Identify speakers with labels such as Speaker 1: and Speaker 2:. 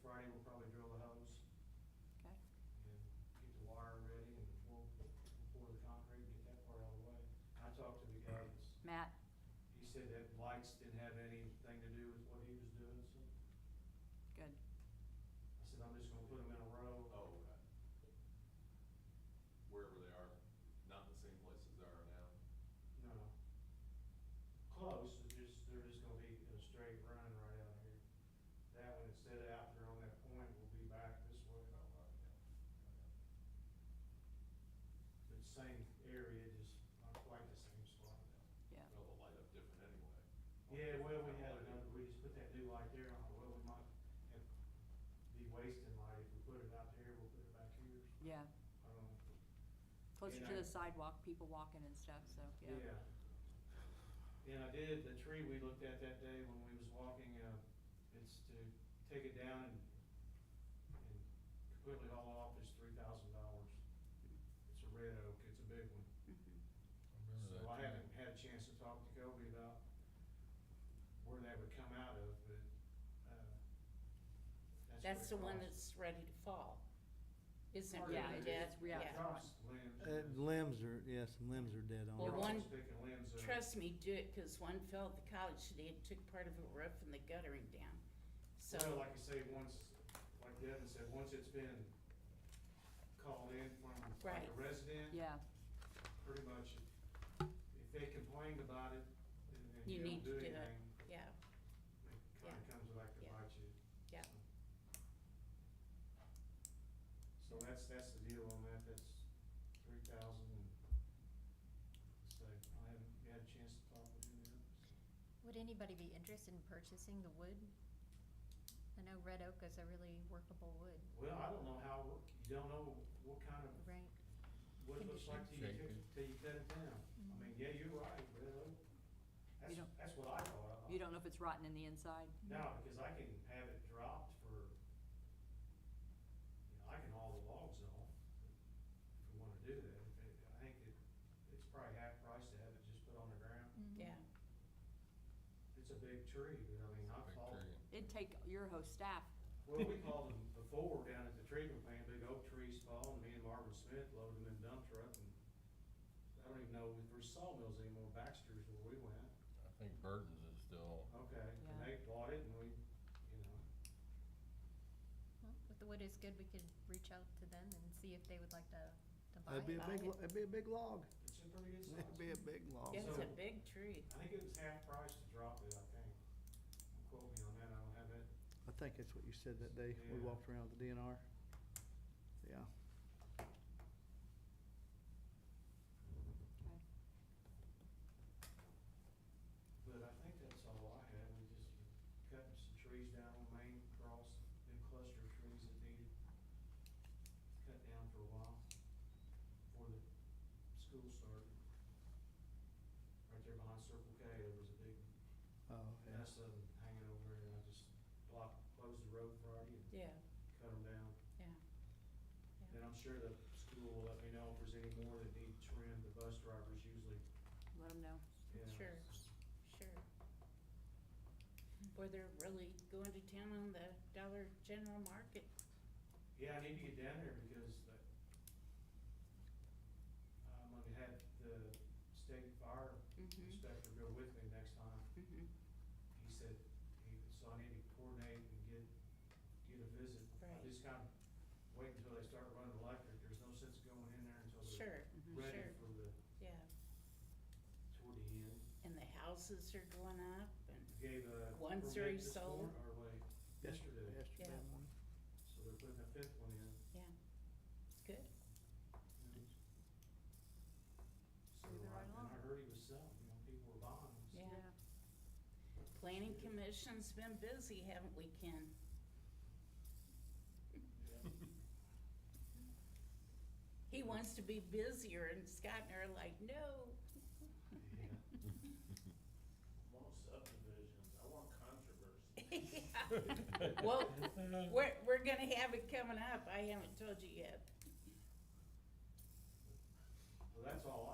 Speaker 1: Friday, we'll probably drill the hose
Speaker 2: Okay.
Speaker 1: and get the wire ready and we'll, we'll pour the concrete, get that part out of the way. I talked to the guy that's,
Speaker 2: Matt,
Speaker 1: he said that lights didn't have anything to do with what he was doing, so I
Speaker 2: good.
Speaker 1: said, I'm just gonna put them in a row.
Speaker 3: Oh, okay. Wherever they are, not the same place as they are now.
Speaker 1: No, no. Close, it's just, they're just gonna be in a straight run right out here. That one, instead of out there on that point, will be back this way.
Speaker 3: Oh, wow, yeah.
Speaker 1: The same area, just not quite the same spot.
Speaker 2: Yeah.
Speaker 3: Well, they'll light up different anyway.
Speaker 1: Yeah, well, we had another, we just put that new light there, on, well, we might have- be wasting light if we put it out there, we'll put it back here.
Speaker 2: Yeah,
Speaker 1: Um,
Speaker 2: closer
Speaker 1: And
Speaker 2: to
Speaker 1: I-
Speaker 2: the sidewalk, people walking and stuff, so, yeah.
Speaker 1: yeah. And I did, the tree we looked at that day when we was walking, uh, it's to take it down and, and completely haul it off, is three thousand dollars. It's a red oak, it's a big one.
Speaker 2: Mhm.
Speaker 1: So I haven't had a chance to talk to Kobe about where that would come out of, but, uh,
Speaker 4: That's the
Speaker 1: what it
Speaker 4: one
Speaker 1: costs.
Speaker 4: that's ready to fall, isn't it?
Speaker 2: Yeah,
Speaker 4: really,
Speaker 2: it
Speaker 4: Dad?
Speaker 2: is, yeah, it's
Speaker 4: Yeah.
Speaker 2: right.
Speaker 1: Drops, limbs.
Speaker 5: Uh, limbs are, yes, limbs are dead on.
Speaker 4: Well,
Speaker 1: We're
Speaker 5: it.
Speaker 4: one-
Speaker 1: always picking limbs up.
Speaker 4: Trust me, do it, cause one fell at the college today and took part of a roof and the guttering down, so.
Speaker 1: Well, like I say, once, like Devin said, once it's been called in from like
Speaker 4: Right.
Speaker 1: a resident,
Speaker 2: Mm-hmm. Yeah,
Speaker 1: pretty much, if- if they complained about it, then then
Speaker 4: You
Speaker 1: you don't
Speaker 4: need
Speaker 1: do
Speaker 4: to do it.
Speaker 1: anything,
Speaker 4: Yeah,
Speaker 1: it kinda
Speaker 4: Yeah.
Speaker 1: comes back to
Speaker 4: Yeah.
Speaker 1: bite you.
Speaker 4: Yeah.
Speaker 1: So that's, that's the deal on that, that's three thousand and, so I haven't had a chance to talk with him yet.
Speaker 6: Would anybody be interested in purchasing the wood? I know red oak is a really workable wood,
Speaker 1: Well, I don't know how, you don't know what kind of
Speaker 6: right?
Speaker 1: what it looks like till you,
Speaker 5: Condition.
Speaker 1: cut- till you cut it down. I mean, yeah, you're right, but uh, that's,
Speaker 2: don't-
Speaker 1: that's what I thought.
Speaker 2: you don't know if it's rotten in the inside?
Speaker 1: No, because I can have it dropped for, you know, I can haul the logs off if we wanna do that. If it- I think it, it's probably half price to have it just put on the ground.
Speaker 4: yeah,
Speaker 1: It's a big tree, but I mean, I've hauled,
Speaker 2: It'd take your whole staff,
Speaker 1: well, we hauled them before down at the treatment plant, big oak trees fall, and me and Marvin Smith loaded them in dump truck and I don't even know if there's sawmills anymore, Baxter's where we went.
Speaker 7: I think Burton's is still,
Speaker 1: Okay, and
Speaker 2: Yeah.
Speaker 1: they bought it and we, you know,
Speaker 6: Mm-hmm. Well, if the wood is good, we could reach out to them and see if they would like to, to buy
Speaker 5: It'd be a
Speaker 6: it.
Speaker 5: big, lo- it'd be a big log.
Speaker 1: it's a pretty good size.
Speaker 5: It'd be a big log.
Speaker 4: it's a
Speaker 1: So-
Speaker 4: big tree,
Speaker 1: I think it was half price to drop it, I think. Don't Quote me on that, I don't have it.
Speaker 5: I think that's what you said that day we
Speaker 1: Yeah.
Speaker 5: walked around the DNR. Yeah.
Speaker 1: But I think that's all I had, we just cut some trees down on Main Cross, big cluster of trees that needed cut down for a while before the school started. Right there behind Circle K, there was a big
Speaker 5: Oh, yeah.
Speaker 1: mess of them hanging over there and I just blocked, closed the road Friday and
Speaker 4: yeah,
Speaker 1: cut them down.
Speaker 4: yeah.
Speaker 1: And I'm sure the school will let me know if there's any more that need trim, the bus drivers usually,
Speaker 2: let them know.
Speaker 1: yeah.
Speaker 4: Sure. Sure. Or they're really going to town on the Dollar General Market.
Speaker 1: Yeah, I need to get down there because the, I'm gonna have the state fire
Speaker 4: Mm-hmm,
Speaker 1: inspector go with me next time.
Speaker 4: mm-hmm,
Speaker 1: He said, he, so I need to coordinate and get, get a visit. I
Speaker 4: Right.
Speaker 1: just kinda wait until they start running electric, there's no sense going in there until they're
Speaker 4: sure,
Speaker 2: Mhm.
Speaker 1: ready
Speaker 4: sure.
Speaker 1: for the,
Speaker 4: yeah.
Speaker 1: toward the end.
Speaker 4: And the houses are going up and,
Speaker 1: Gave a
Speaker 4: One's
Speaker 1: permit
Speaker 4: already
Speaker 1: this
Speaker 4: sold.
Speaker 1: morning, or wait, yesterday,
Speaker 5: Yesterday
Speaker 4: Yeah.
Speaker 5: morning.
Speaker 1: so they're putting a fifth one in.
Speaker 4: yeah, good.
Speaker 1: So,
Speaker 2: Moving
Speaker 1: I-
Speaker 2: right
Speaker 1: and I
Speaker 2: along.
Speaker 1: heard he was selling, you know, people were buying. so-
Speaker 4: Yeah. Planning Commission's been busy, haven't we, Ken?
Speaker 1: Yeah.
Speaker 4: He wants to be busier and Scott and I are like, no.
Speaker 8: want subdivisions, I want controversy.
Speaker 4: Well, we're, we're gonna have it coming up, I haven't told you yet.
Speaker 1: Well, that's all I